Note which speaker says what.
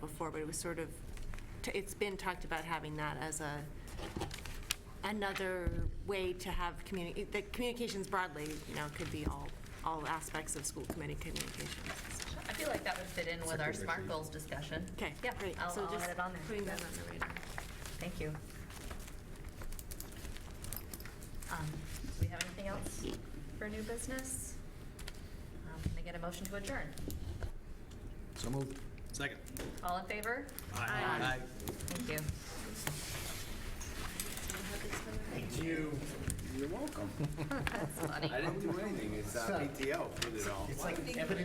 Speaker 1: before, but it was sort of, t- it's been talked about having that as a, another way to have communi, the communications broadly, you know, could be all, all aspects of school committee communications.
Speaker 2: I feel like that would fit in with our SMART goals discussion.
Speaker 1: Okay,
Speaker 2: Yeah,
Speaker 1: great.
Speaker 2: I'll
Speaker 1: So
Speaker 2: I'll
Speaker 1: just
Speaker 2: add it on there.
Speaker 1: Putting that on the radar.
Speaker 2: Thank you. Um, Do we have anything else for new business? Um, Can I get a motion to adjourn?
Speaker 3: So moved.
Speaker 4: Second.
Speaker 2: All in favor?
Speaker 4: Aye.
Speaker 2: Thank you.
Speaker 4: I didn't do anything. It's uh, PTO, did it all.